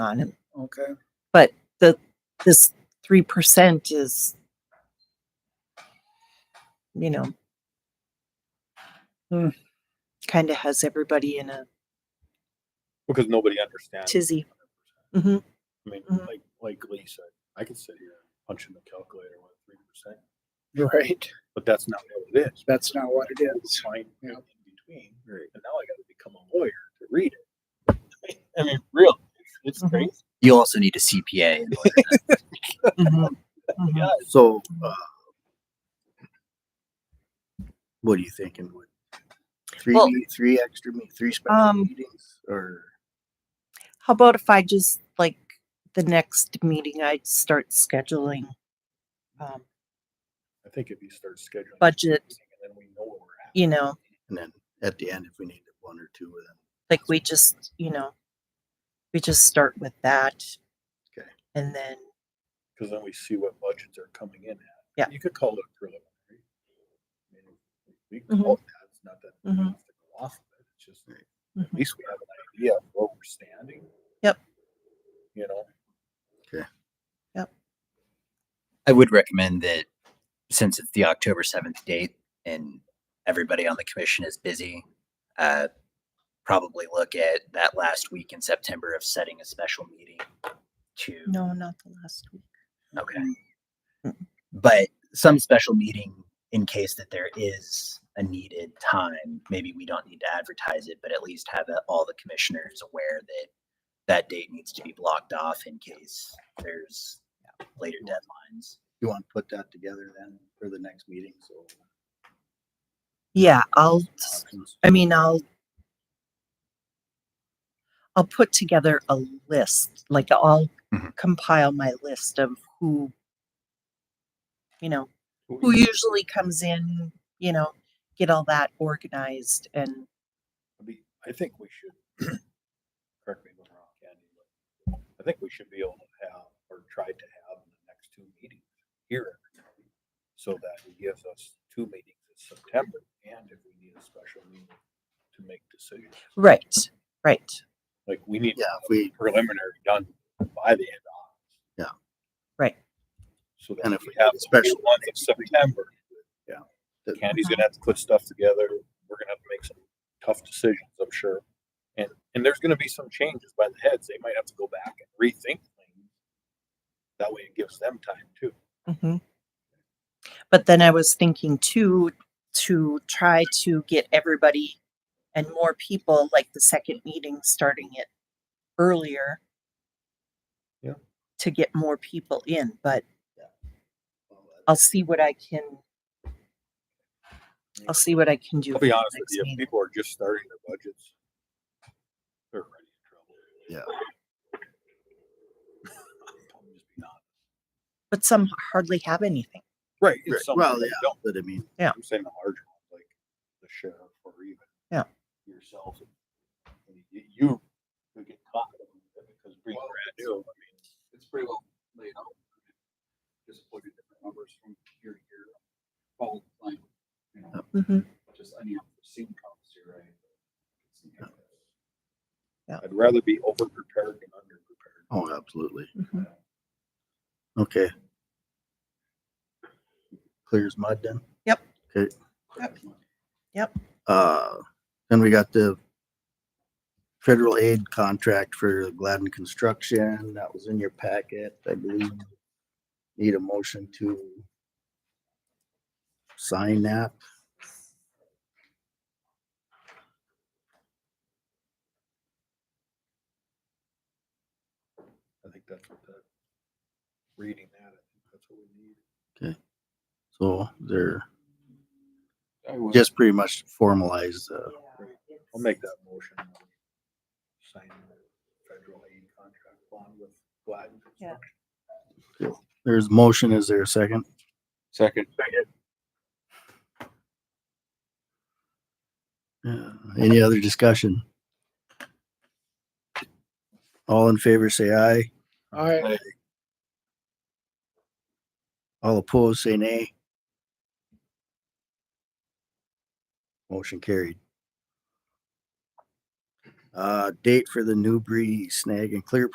on it. Okay. This three percent is, you know, Hmm. kind of has everybody in a because nobody understands. tizzy. I mean, Mhm. like like Lee said, I could sit here punching the calculator with three percent, Right. but that's not what it is. That's not what it is. Find it Yeah. in between, and now I got to become a lawyer to read it. I mean, real, it's Mhm. crazy. You also need a CPA. Mhm, mhm. Yeah, So, uh, what are you thinking? Would three, Well- me- three extra, me- three special Um, meetings, or How about if I just like the next meeting, I start scheduling um, I think if you start scheduling Budget. everything and then we know where we're at. you know, and then at the end, if we need one or two of them. like we just, you know, we just start with that. Okay. And then, because then we see what budgets are coming in at. Yeah. You could call it preliminary. I mean, we can Mhm. call it that. It's not that we Mhm. have to go off of it. It's just Mhm. Mm-hmm. at least we have an idea of where we're standing. Yep. You know, I would recommend that since it's the October 7th date and everybody on the commission is busy, uh, probably look at that last week in September of setting a special meeting to, no, not the last week. okay. Mm. But some special meeting in case that there is a needed time. Maybe we don't need to advertise it, but at least have it- all the commissioners aware that that date needs to be blocked off in case there's later deadlines. You want to put that together then for the next meeting? So Yeah, I'll, s- options. I mean, I'll, I'll put together a list, like I'll Mhm. compile my list of who, you know, Who who usually comes in, you know, get all that organized and I mean, I think we should, correct me if I'm wrong, Andy, but I think we should be able to have, or try to have the next two meetings here. So that it gives us two meetings in September and if we need a special meeting to make decisions. right, right, Like we need yeah, if we preliminary done by the end of August. Yeah. Right. So then And if if we we have need a the special special month of September, the- Candy's gonna have to put stuff together. We're gonna have to make some tough decisions, I'm sure. And, and there's gonna be some changes by the heads. They might have to go back and rethink things. That way it gives them time too. hmm But then I was thinking too to try to get everybody and more people like the second meeting starting it earlier. Yeah. To get more people in, but well, I'll see what I can. I'll see what I can do. I'll for be the honest with next you, if meeting. people are just starting their budgets. They're already in trouble. Yeah. I'm just being honest. But some hardly have anything. Right. Right. it's something Well, they yeah. don't But I mean, I'm saying the larger ones, like the sheriff or even Yeah. yourself. I mean, y- You could get caught because being Well, brand new, I mean, it's pretty well laid out. Just plug in different numbers from year to year. Follow the line, you know, just unforeseen comes here, right? I'd rather be over prepared than under prepared. oh, absolutely. Mhm. Okay. Clear as mud then? Yep. Okay. Yep. Uh, then we got the federal aid contract for Gladden Construction. That was in your packet, I believe. Need a motion to sign that. I think that's what the, reading that, I think that's what we need. So they're I would, just pretty much uh, formalize the, I'll make that motion. Sign the federal aid contract bond with Gladden. Yeah. there's motion. Is there a second? second. Yeah. Any other discussion? All in favor, say aye. All right. All opposed, say nay. Motion carried. Uh, date for the Newbury Snag and Clear